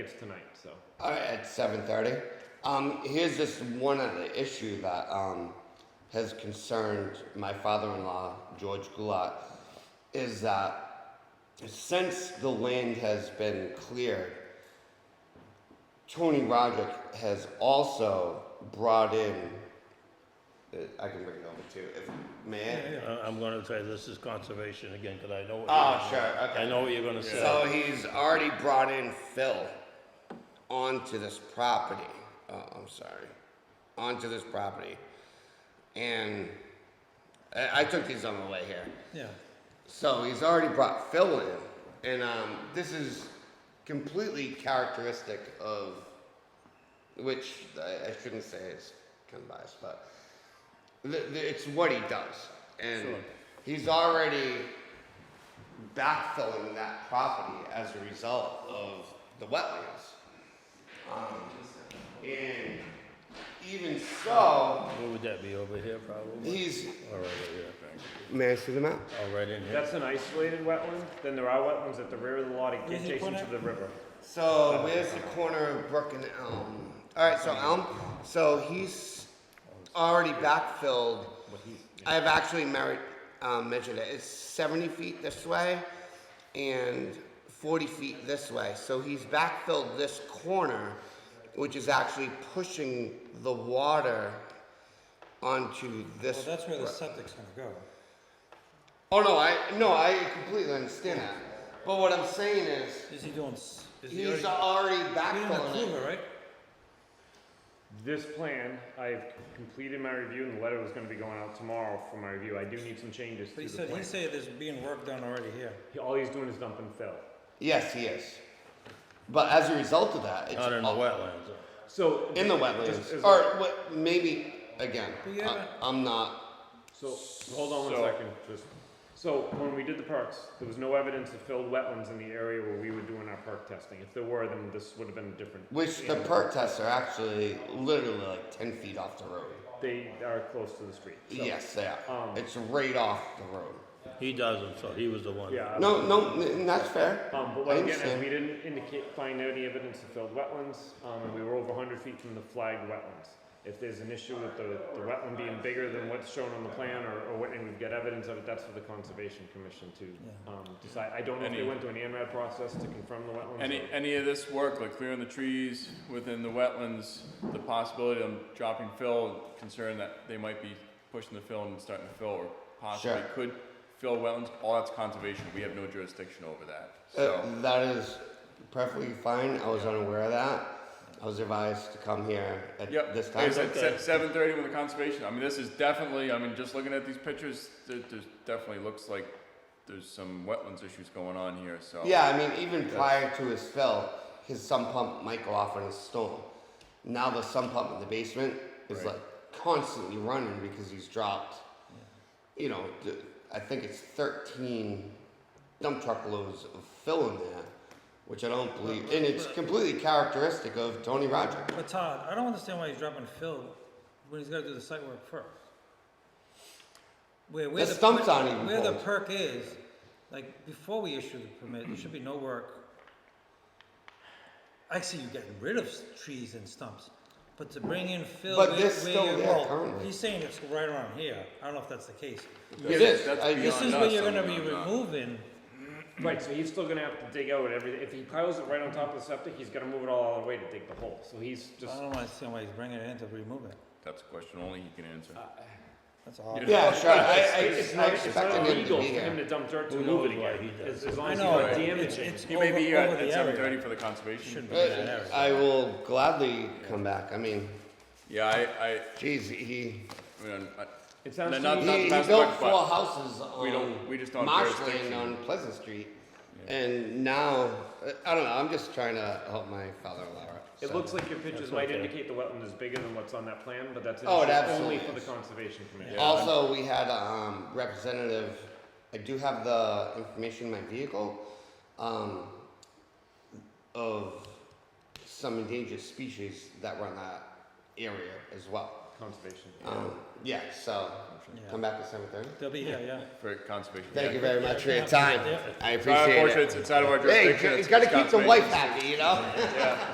It's tonight, so. All right, at seven thirty. Um, here's just one other issue that um, has concerned my father-in-law, George Gulat, is that since the land has been cleared, Tony Roderick has also brought in. uh, I can bring it over too, if may. I? I- I'm gonna say this is conservation again, because I know. what Oh, you're gonna- sure, okay. I know what you're gonna say. So he's already brought in Phil onto this property. Oh, I'm sorry. Onto this property. And I, I took these on the way here. Yeah, So he's already brought Phil in. And um, this is completely characteristic of, which I, I shouldn't say is kind of biased, but th- th- it's what he does. And Sure. he's already backfilling that property as a result of the wetlands. Um, and even so, where would that be, over here probably? he's. Or right over here, I think. May I see the map? Oh, right in here. That's an isolated wetland, then there are wetlands at the rear of the lot Where did he adjacent put to it? the river. So where's the corner of Brook and Elm? All right, so Elm. So he's already backfilled. I've actually merit, um, measured it. It's 70 feet this way and 40 feet this way. So he's backfilled this corner, which is actually pushing the water onto this. Well, Oh, that's where the brook. septic's gonna go. Oh no, I no, I completely understand that. But what I'm saying is, Is he doing, s- is he already, he's already he didn't backfilling it. approve it, right? This plan, I've completed my review and the letter was gonna be going out tomorrow for my review. I do need some changes But to he the said, he plan. said there's being work done already here. He- All he's doing is dumping fill. Yes, he is. But as a result of that, it's Out in the all- wetlands. uh, So. in the Just wetlands, as- or what? Maybe again. But you haven't- I, am not. So, hold on So- one second, just, so when we did the perks, there was no evidence of filled wetlands in the area where we were doing our perk testing. If there were, then this would have been a different. Which the animal. perk tests are actually literally like ten feet off the road. They are close to the street. so- yes, they are. um, it's right off the road. He doesn't, so he was the one. Yeah. No, no, n- that's fair. Um, but what I I'm getting at, understand. we didn't indicate, find any evidence of filled wetlands, um, and we were over hundred feet from the flagged wetlands. If there's an issue with the, the wetland being bigger than what's shown on the plan, or, or what, and we've got evidence of it, that's for the conservation commission to, Yeah. um, decide. I don't know if they Any- went through an ANRAD process to confirm the wetlands. Any, or- any of this work, like clearing the trees within the wetlands, the possibility of dropping fill, concern that they might be pushing the fill and starting to fill, or possibly Sure. could fill wetlands, all that's conservation, we have no jurisdiction over that, Uh, so. that is perfectly fine. I was unaware of that. I was advised to come here at Yep, this like time. I said, seven thirty with the conservation, I mean, this is definitely, I mean, just looking at these pictures, it, there's definitely looks like there's some wetlands issues going on here, so. Yeah, I mean, even prior to his fill, his sump pump might go off in a storm. Now the sump pump in the basement is Right. like constantly running because he's dropped, you know, th- I think it's 13 dump truck loads of fill in there, which I don't believe, and it's completely characteristic of Tony Roger. But Todd, I don't understand why he's dropping fill when he's gotta do the site work first. Where, where The the. stump's per- aren't even Where the pulled. perk is, like, before we issue the permit, there should be no work. I see you getting rid of s- trees and stumps, but to bring in fill. But where- they're where still you- there well, currently. He's saying it's right around here, I don't know if that's the case. It is. That's I- beyond This is us, where you're I mean, gonna be I'm not- removing. Right, so he's still gonna have to dig out everything. If he piles it right on top of the septic, he's gonna move it all the way to dig the hole. So he's just, I don't understand why he's bringing it in to remove it. That's a question only he can answer. Uh, That's all. Yeah, sure. I, I, it's I not, it's not expected him to illegal be for him to here. dump dirt to Who move it knows why he again. does As, it. as long I as know, you're not it's, it's, damaging. it's He may over- be here over the at seven area. thirty for the conservation. Shouldn't be that Uh, area. I will gladly come back. I mean, Yeah, I, I, geez, he I mean, I- It sounds No, to not- me- not- He, he that's built my four fault. houses We on don't- we just don't Marsh Lane jurisdiction. on Pleasant Street, and now, I don't know, I'm just trying to help my father-in-law out. It so. looks like your pictures That's might okay. indicate the wetland is bigger than what's on that plan, but that's an Oh, it issue only absolutely for the is. conservation commission. Also, we had a um, representative, I do have the information in my vehicle, um, of some endangered species that were in that area as well. conservation. Um, yeah, so Yeah. come back at seven thirty. They'll be here, yeah. for conservation. Thank Yeah. you very much for your time. I It's out of our appreciate portrait, it. It's out of our Hey, jurisdiction. you it's- gotta it's keep the conservation. wife happy, you know? Yeah.